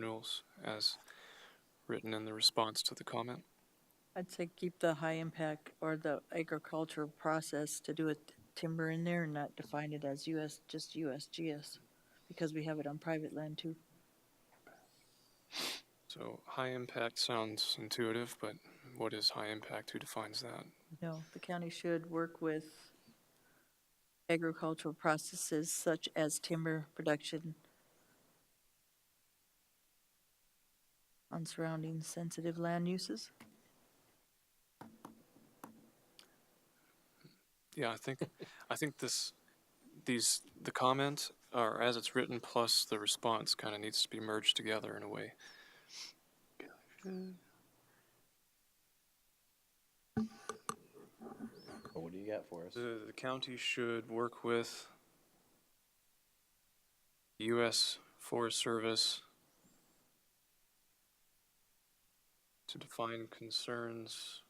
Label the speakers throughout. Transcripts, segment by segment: Speaker 1: goals as written in the response to the comment.
Speaker 2: I'd say keep the high impact or the agricultural process to do with timber in there and not define it as US, just USGS, because we have it on private land too.
Speaker 1: So high impact sounds intuitive, but what is high impact? Who defines that?
Speaker 2: No, the county should work with agricultural processes such as timber production on surrounding sensitive land uses.
Speaker 1: Yeah, I think, I think this, these, the comment, or as it's written, plus the response kind of needs to be merged together in a way.
Speaker 3: Well, What do you got for us?
Speaker 1: The, the county should work with U.S. Forest Service to define concerns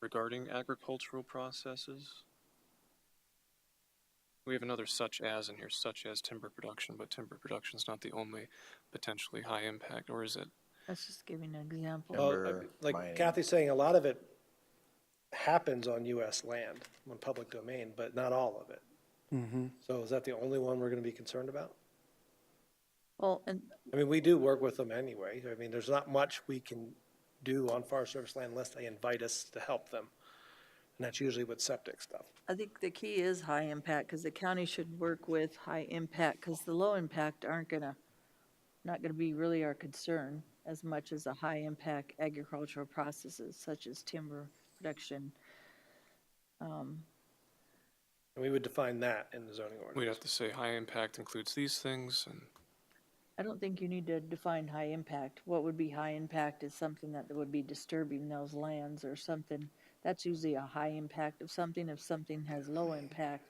Speaker 1: regarding agricultural processes. We have another such as in here, such as timber production, but timber production is not the only potentially high impact, or is it?
Speaker 2: That's just giving an example.
Speaker 4: Well,
Speaker 3: timber,
Speaker 4: like- Like
Speaker 3: mining.
Speaker 4: Kathy's saying, a lot of it happens on US land, on public domain, but not all of it. So is that the only one we're gonna be concerned about?
Speaker 2: Well, and
Speaker 4: I mean, we do work with them anyway. I mean, there's not much we can do on Forest Service land unless they invite us to help them. And that's usually with septic stuff.
Speaker 2: I think the key is high impact, because the county should work with high impact, because the low impact aren't gonna, not gonna be really our concern as much as the high impact agricultural processes such as timber production.
Speaker 4: And we would define that in the zoning
Speaker 1: We'd
Speaker 4: ordinance.
Speaker 1: have to say high impact includes these things, and
Speaker 2: I don't think you need to define high impact. What would be high impact is something that would be disturbing those lands or something. That's usually a high impact of something, if something has low impact.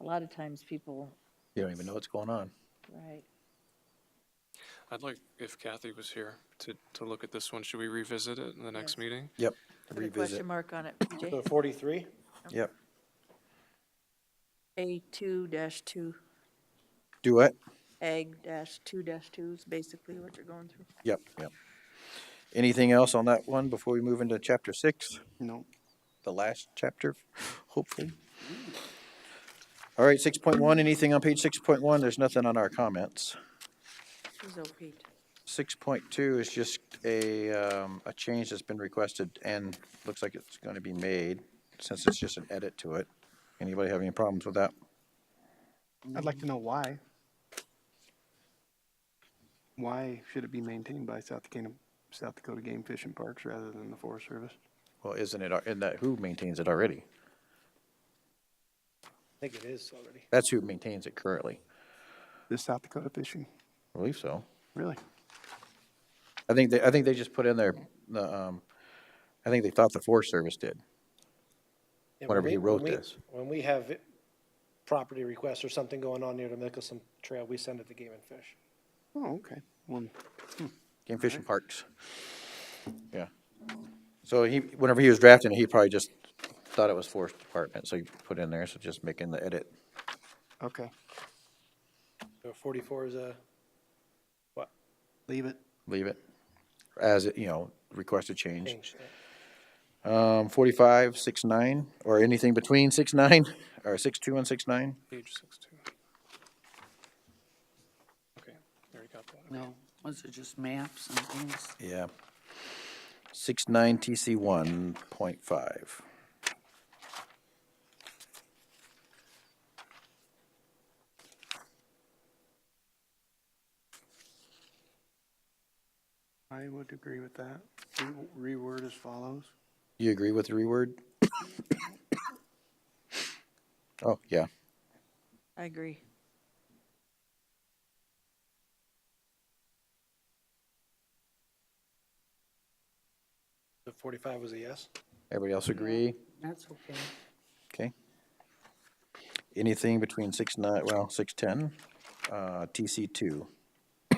Speaker 2: A lot of times people,
Speaker 3: You don't even know what's going on.
Speaker 2: right,
Speaker 1: I'd like, if Kathy was here, to, to look at this one. Should we revisit it in the next
Speaker 2: Yes.
Speaker 1: meeting?
Speaker 3: Yep.
Speaker 2: put a question mark on it, PJ.
Speaker 4: So forty-three?
Speaker 3: Yep.
Speaker 2: A two dash two,
Speaker 3: Do it.
Speaker 2: ag dash two dash two is basically what you're going through.
Speaker 3: Yep, yep. Anything else on that one before we move into chapter six?
Speaker 5: No.
Speaker 3: The last chapter, hopefully. All right, six point one, anything on page six point one? There's nothing on our comments.
Speaker 2: She's OP'd.
Speaker 3: Six point two is just a, um, a change that's been requested and looks like it's gonna be made since it's just an edit to it. Anybody have any problems with that?
Speaker 5: I'd like to know why. Why should it be maintained by South Dakota, South Dakota Game Fish and Parks rather than the Forest Service?
Speaker 3: Well, isn't it, in that, who maintains it already?
Speaker 4: I think it is already.
Speaker 3: That's who maintains it currently.
Speaker 5: This South Dakota Fishing,
Speaker 3: I believe so.
Speaker 5: really?
Speaker 3: I think they, I think they just put in there, the, um, I think they thought the Forest Service did.
Speaker 4: Yeah,
Speaker 3: whenever
Speaker 4: when
Speaker 3: he
Speaker 4: we-
Speaker 3: wrote
Speaker 4: when we-
Speaker 3: this.
Speaker 4: When we have it- property requests or something going on near the Mickelson Trail, we send it to Game and Fish.
Speaker 5: Oh, okay. Well,
Speaker 3: Game Fish and Parks. Yeah. So he, whenever he was drafting, it, he probably just thought it was Forest Department, so he put in there, so just making the edit.
Speaker 5: okay,
Speaker 4: So forty-four is a, what,
Speaker 5: leave it.
Speaker 3: Leave it as, it you know, requested change.
Speaker 4: change?
Speaker 3: Um, forty-five, six, nine, or anything between six, nine, or six, two and six, nine?
Speaker 1: Page six two. Okay, already got that.
Speaker 6: No, was it just maps and things?
Speaker 3: Yeah. Six, nine, TC one point five.
Speaker 5: I would agree with that. Re- Reword as follows.
Speaker 3: You agree with the reword? Oh, yeah.
Speaker 2: I agree.
Speaker 4: So forty-five was a yes?
Speaker 3: Everybody else agree?
Speaker 6: That's okay.
Speaker 3: Okay. Anything between six nine, well, six ten, uh, TC two.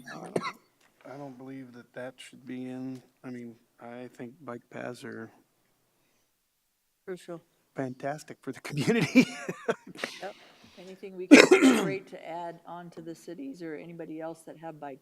Speaker 5: I don't believe that that should be in, I mean, I think bike paths are
Speaker 2: Crucial.
Speaker 5: fantastic for the community.
Speaker 2: Yep. Anything we can create to add on to the cities or anybody else that have bike